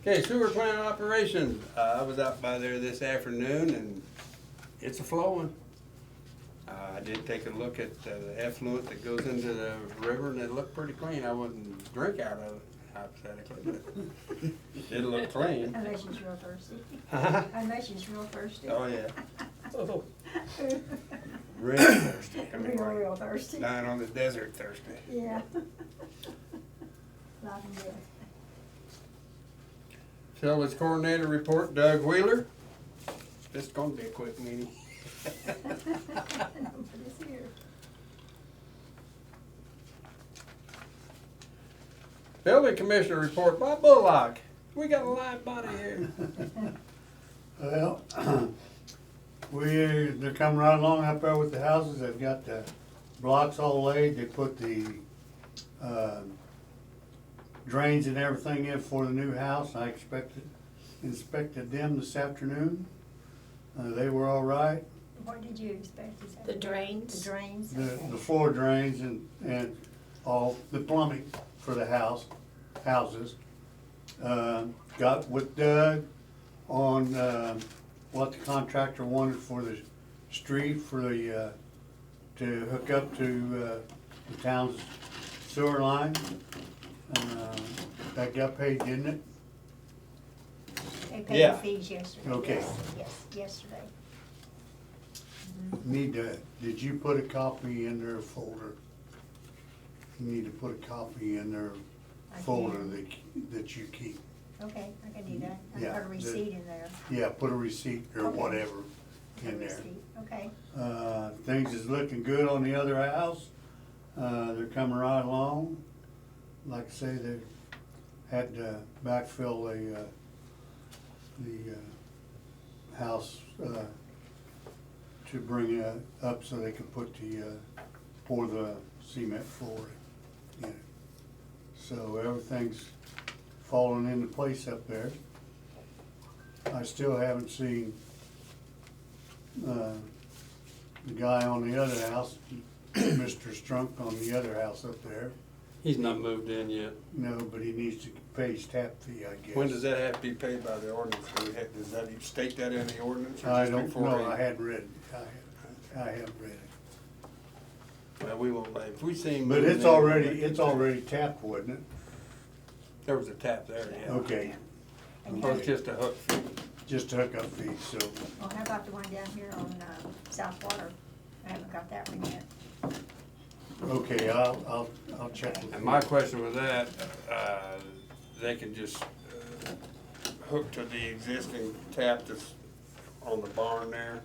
Okay, sewer plant operations, uh, I was out by there this afternoon and it's a flowing. Uh, I did take a look at uh, the effluent that goes into the river and it looked pretty clean, I wouldn't drink out of it hypothetically, but it looked clean. Unless she's real thirsty. Huh? Unless she's real thirsty. Oh, yeah, Oh, real thirsty, I mean, Real, real like thirsty. dying on the desert thirsty. Yeah. Life and death. So it's coordinator report, Doug Wheeler. This is gonna be a quick meeting. Nobody's here. Building commissioner report, Bob Bullock. We got a live body here. Well, we, they're coming right along up there with the houses, they've got the blocks all laid, they put the, um, drains and everything in for the new house, I expected, inspected them this afternoon. Uh, they were all right, What did you expect to say? The The drains. drains? the, the floor drains and, and all, the plumbing for the house, houses. Um, Got with Doug on, um, what the contractor wanted for the street, for the, uh, to hook up to, uh, the town's sewer line. Um, That got paid, didn't it? They paid the Yeah. fees yesterday. Okay. Yes, Yes, yesterday. Need to, did you put a copy in their folder? You need to put a copy in their I did. folder that, that you keep. Okay, I can do that. I Yeah, put a the- receipt in there. Yeah, put a receipt or Okay. whatever in A there. receipt. Okay, Uh, things is looking good on the other house. Uh, they're coming right along. Like I say, they had to backfill the, uh, the, uh, house, uh, to bring it up so they could put the, uh, pour the cement floor in it. So everything's falling into place up there. I still haven't seen, uh, the guy on the other house, Mr. Strunk on the other house up there. He's not moved in yet. No, but he needs to pay his tap fee, I guess. When does that have to be paid by the ordinance? Do we have- Does that, you state that in the ordinance? or I just don't before know, we- I hadn't read, it. I, I haven't read it. Well, we won't, let- if we see him. But moving it's in, we'll already, make- it's already tapped, wasn't it? There was a tap there, yeah. Okay, and Or how, it's just a hook. just a hookup fee, so, well, how about the one down here on, um, South Water? I haven't got that one yet. okay, I'll, I'll, I'll check with And him. my question with that, uh, they can just uh, hook to the existing tap that's on the barn there?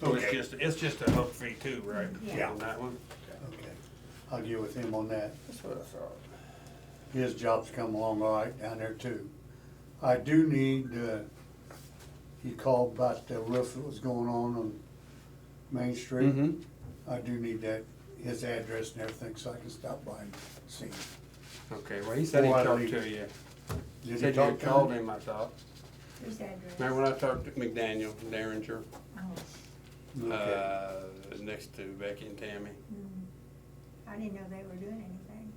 So it's Okay. just, it's just a hook fee too, right? Yeah. On that one? Okay, I'll get with him on that. That's what I thought. his job's come along all right down there too. I do need, uh, he called about the roof that was going on on Main Street. Mhm. I do need that, his address and everything, so I can stop by and see. him. Okay, well, he said he Why talked leave? to you. Did He he said you talk had to him? called him, I thought. Who's that address? Remember when I talked to McDaniel, Derringer, Oh, Okay. uh, next to Becky and Tammy? mm. I didn't know they were doing anything.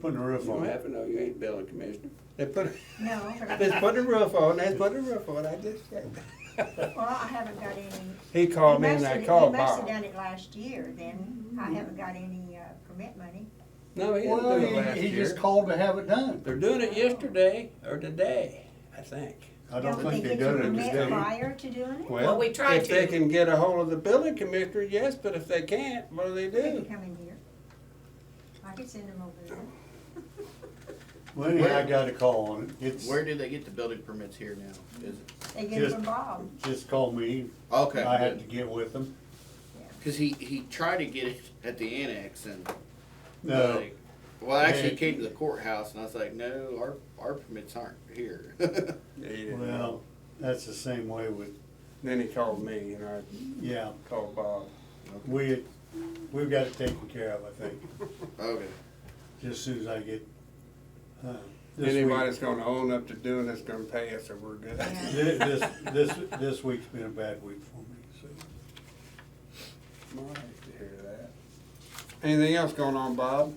Putting the You roof don't on. have to know, you ain't building commissioner. They put, No, but they I, put a roof on, they put a roof on, I just said. well, I haven't got any. He called me and They I must've- called They must've Bob. done it last year then. I haven't got any, uh, permit money. No, he didn't do Well, it last he, he just year. called to have it done. They're doing it yesterday or today, I think. I don't think they get your done it permit today. Prior to doing it? Well, we tried If they to. can get a hold of the building commissioner, yes, but if they can't, what do they They can do? come in here. I could send them over there. Well, anyhow, I got a call on it. It's, Where do they get the building permits here now? Is it, They get it Just- from Bob. just called me. I had okay, to get with them. because he, he tried to get it at the annex and, No, like, well, actually, Yeah. he came to the courthouse and I was like, no, our, our permits aren't here. Yeah, he didn't. well, that's the same way with, Then he called me and I yeah, called Bob. we, we've got it taken care of, I think. Okay. just as soon as I get, uh, this Anybody week. that's gonna own up to doing it's gonna pay us or we're good. Yeah. Thi- This, this, this week's been a bad week for me, so. Well, I hate to hear that. Anything else going on, Bob?